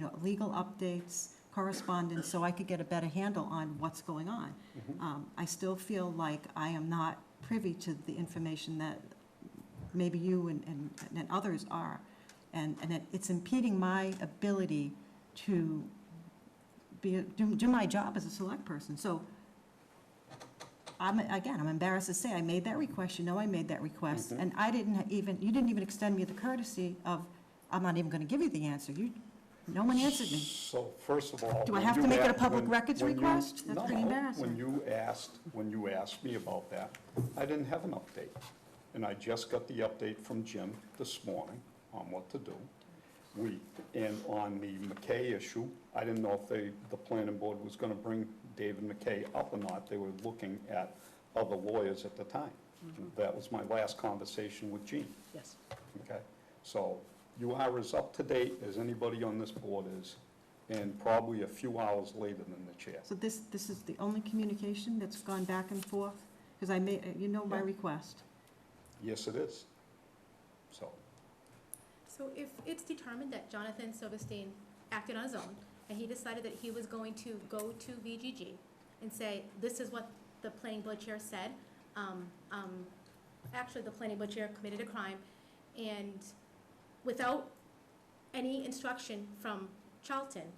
know, legal updates, correspondence, so I could get a better handle on what's going on. Um, I still feel like I am not privy to the information that maybe you and, and and others are. And, and it- it's impeding my ability to be, do, do my job as a select person. So I'm, again, I'm embarrassed to say, I made that request, you know I made that request, Mhm. and I didn't even, you didn't even extend me the courtesy of, I'm not even gonna give you the answer, you, no one answered me. So first of all. Do I when have to you make it a a- public when- records when you- request? That's no, pretty no. embarrassing. When you asked, when you asked me about that, I didn't have an update. And I just got the update from Jim this morning on what to do. We, and on the McKay issue, I didn't know if they, the planning board was gonna bring David McKay up or not. They were looking at other lawyers at the time. That was my last conversation with Gene. Yes. Okay, so you are as up to date as anybody on this board is, and probably a few hours later than the chair. So this, this is the only communication that's gone back and forth, because I made, you know my Yeah. request. Yes, it is. So, So if it's determined that Jonathan Silverstein acted on his own, and he decided that he was going to go to VGG and say, this is what the planning board chair said, um, um, actually, the planning board chair committed a crime, and without any instruction from Charlton,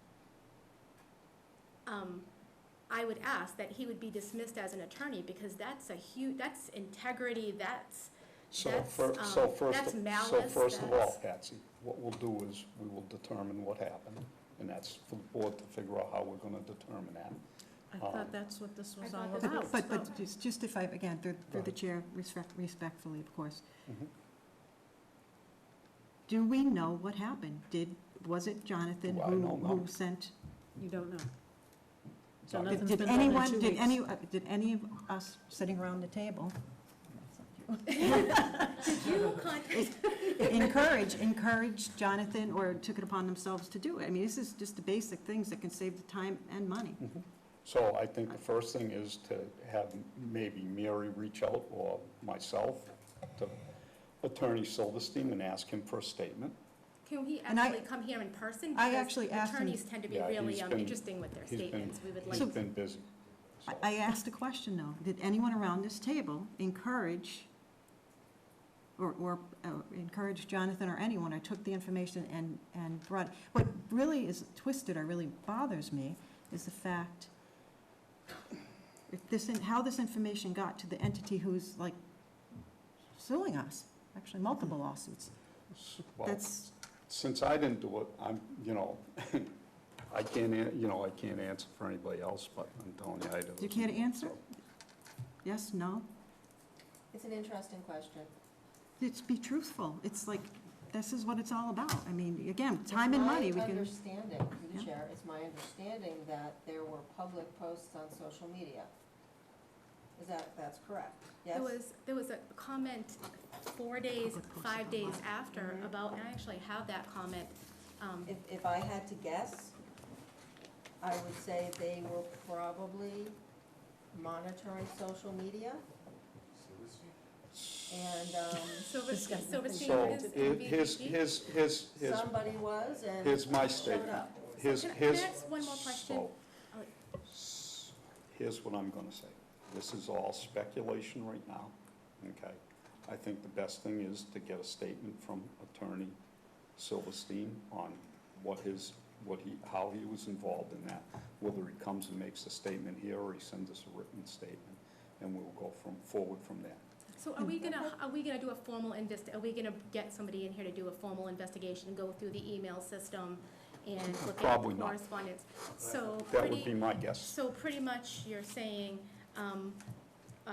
um, I would ask that he would be dismissed as an attorney, because that's a huge, that's integrity, that's, so That's, fir- so um, first, that's so malice, first of all, that's- Patsy, what we'll do is, we will determine what happened, and that's for the board to figure out how we're gonna determine that. I Um, thought that's what this was I all thought that about. was- But, so- but just- just if I, again, through, through the Right. chair, respect respectfully, of course, Mhm. do we know what happened? Did, was it Jonathan Do I who, know? No. who sent? You don't know. So Right. nothing's Did been done in anyone, two did weeks. any, uh, did any of us sitting around the table did you contact encourage, encourage Jonathan or took it upon themselves to do it? I mean, this is just the basic things that can save the time and money. Mm-hmm. So I think the first thing is to have maybe Mary reach out or myself to Attorney Silverstein and ask him for a statement. Can he And I- actually come here in person? I Because actually asked him- Attorneys tend to be Yeah, he's really um, been- interesting with their he's been- statements. We would He's like, been busy. so. I- I asked a question, though. Did anyone around this table encourage or, or uh, encourage Jonathan or anyone, I took the information and, and brought, what really is twisted or really bothers me is the fact if this, in- how this information got to the entity who's like suing us, actually multiple lawsuits. Well, That's, Since I didn't do it, I'm, you know, I can't, an- you know, I can't answer for anybody else, but I'm telling you, I do. you can't answer? Yes, no? It's an interesting question. It's be truthful. It's like, this is what it's all about. I mean, again, time and money, we It's my can, understanding, through Yeah. the chair, it's my understanding that there were public posts on social media. Is that, that's correct? Yes? there was, there was a comment four days, five days after Mhm. about, and I actually have that comment. um, If, if I had to guess, I would say they were probably monitoring social media and, um, Silver- Silverstein So, is in here- here's, VGG. here's, here's, here's, somebody was and here's my showed statement. up. Here's, Can I- here's. can I ask one more question? so, Oh. s- Here's what I'm gonna say. This is all speculation right now, okay? I think the best thing is to get a statement from Attorney Silverstein on what his, what he, how he was involved in that, whether he comes and makes a statement here or he sends us a written statement, and we'll go from, forward from there. So are we gonna, are we gonna do a formal invest, are we gonna get somebody in here to do a formal investigation, and go through the email system and look at the Probably not. correspondence? So That would pretty, be my guess. So pretty much you're saying, um, uh,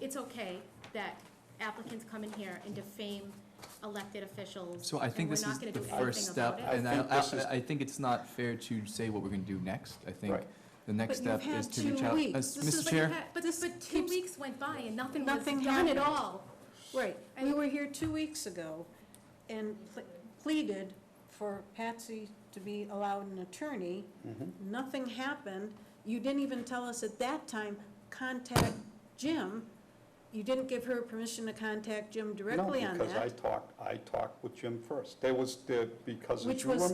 it's okay that applicants come in here and defame elected officials? So I think and we're this not is gonna the do first anything step, about it? and I I, think this is- I, I think it's not fair to say what we're gonna do next. I think Right. the next But you've step is had to two reach out. weeks. Uh, This But Mr. you Chair, had- But, but two keeps- weeks went by and nothing was Nothing done at happened. all. Right, we And- were here two weeks ago and ple- pleaded for Patsy to be allowed an attorney. Mhm. Nothing happened. You didn't even tell us at that time, contact Jim. You didn't give her permission to contact Jim directly on that. No, because I talked, I talked with Jim first. There was, the because if Which you was remember.